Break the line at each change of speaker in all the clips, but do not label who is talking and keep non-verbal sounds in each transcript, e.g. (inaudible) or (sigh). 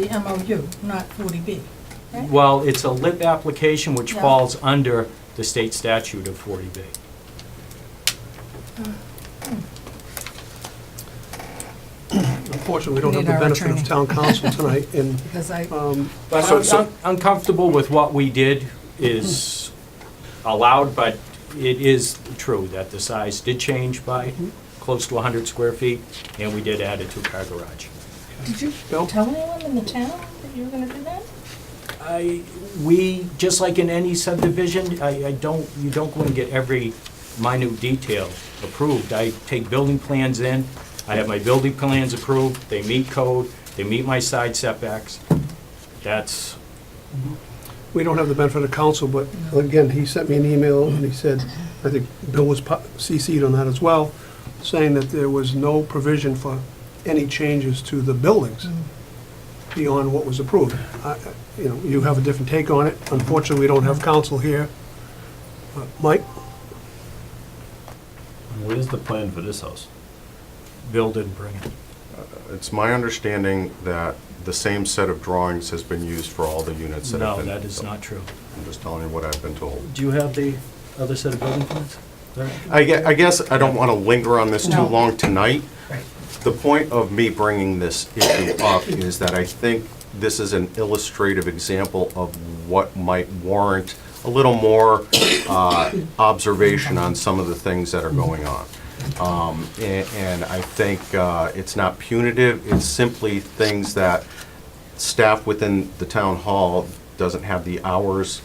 the MOU, not 40B, right?
Well, it's a lit application which
Yeah.
falls under the state statute of 40B.
Unfortunately, we don't have the
Need our
benefit of
attorney. (laughs)
town council tonight, and
Because I,
um,
But
So-
I'm
so-
I'm uncomfortable with what we did is allowed, but it is true that the size did change by close to 100 square feet, and we did add a two-car garage.
did you
Bill?
tell anyone in the town that you were going to do that?
I, we, just like in any subdivision, I, I don't, you don't go and get every minute detail approved. I take building plans in, I have my building plans approved, they meet code, they meet my side setbacks. That's,
we don't have the benefit of council, but again, he sent me an email, and he said, I think Bill was po- CC'd on that as well, saying that there was no provision for any changes to the
Mm.
buildings beyond what was approved. I- I- You know, you have a different take on it. Unfortunately, we don't have council here. Uh, Mike?
What is the plan for this house?
build and bring it.
It's my understanding that the same set of drawings has been used for all the units that
No,
have been...
that is not true.
I'm just telling you what I've been told.
Do you have the other set of building plans?
I gue- I guess I don't want to linger on this too
No.
long tonight.
Right.
The point of me bringing this issue up is that I think this is an illustrative example of what might warrant a little more uh, observation on some of the things that are
Mm-hmm.
going on. Um, a- And I think uh, it's not punitive, it's simply things that staff within the town hall doesn't have the hours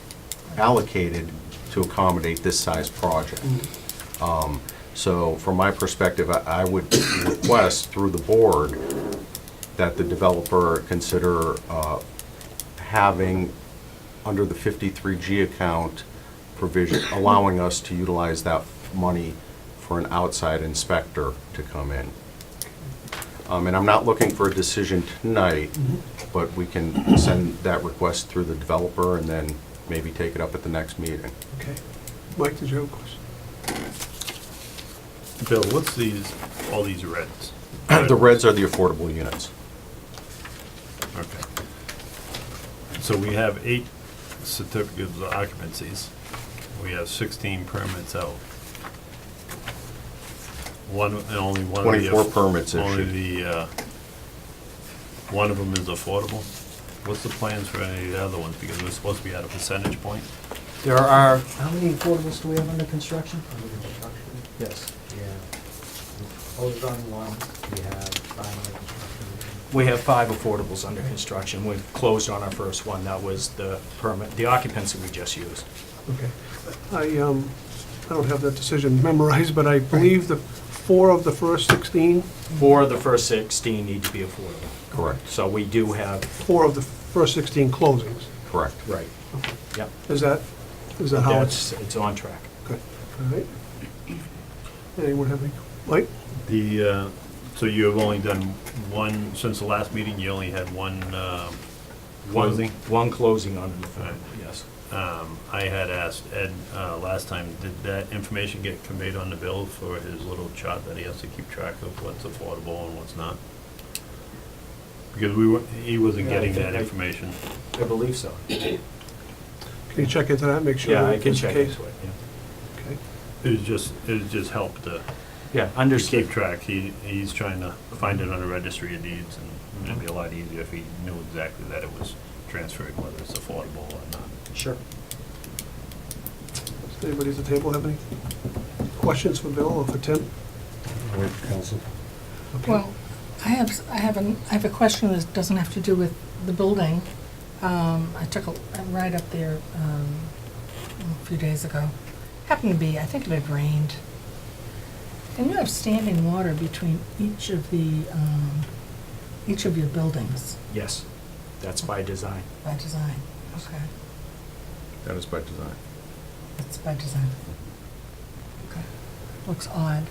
allocated to accommodate this size project.
Mm-hmm.
Um, So from my perspective, I I would request through the board that the developer consider uh, having, under the 53G account provision, allowing us to utilize that money for an outside inspector to come in. Um, And I'm not looking for a decision tonight, but we can send that request through the developer and then maybe take it up at the next meeting.
Okay. Mike, did you have a question?
Bill, what's these, all these reds?
(clears throat) The reds are the affordable units.
Okay. So we have eight certificates of occupancies. We have sixteen permits out. One, and only one of the.
24 permits
Only
issued.
the, uh, one of them is affordable. What's the plans for any of the other ones? Because we're supposed to be at a percentage point.
There are,
How many affordables do we have under construction?
Under construction,
yes.
yeah. Hold on one, we have five under construction.
We have five affordables under construction. We closed on our first one. That was the permit, the occupancy we just used.
Okay. I, um, I don't have that decision memorized, but I believe the four of the first 16,
Four of the first 16 need to be affordable.
Correct.
So we do have,
four of the first 16 closings.
Correct.
right, yep.
Is that, is that how it's?
That's, it's on track.
Good. All right. Anyone have any, Mike?
The, uh, so you have only done one, since the last meeting, you only had one, um,
One-
closing?
One closing on an
Right.
affordable, yes.
Um, I had asked Ed uh, last time, did that information get conveyed on the bill for his little chart that he has to keep track of what's affordable and what's not? Because we were, he wasn't
Yeah, I
getting
think
that
I-
information.
I believe so.
Can you check into that, make sure?
Yeah, I
that
can
it's the
check
case?
this way.
Okay.
It was just, it was just help to
Yeah,
to keep
understood.
track. He, he's trying to find it on the registry of deeds, and it'd be a lot easier if he knew exactly that it was transferred, whether it's affordable or not.
Sure.
Does anybody at the table have any questions for Bill or for Tim?
Well, I have, s- I have, an- I have a question that doesn't have to do with the building. Um, I took a a ride up there um, a few days ago. Happened to be, I think it had rained. And you have standing water between each of the, um, each of your buildings
Yes, that's by design.
by design. Okay,
That is by design.
that's by design. Okay, Looks odd.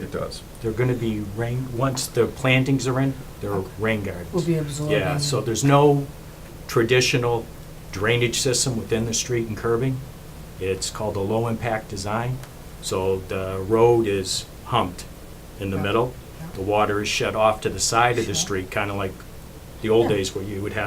It does.
They're going to be rain, once the plantings are in, they're
Okay.
rain gardens.
Will be absorbing.
Yeah, so there's no traditional drainage system within the street and curbing. It's called a low-impact design, so the road is humped in the
Yeah,
middle.
yeah.
The water is shut off to the side of the
Sure.
street, kind of like the old
Yeah.
days where you would have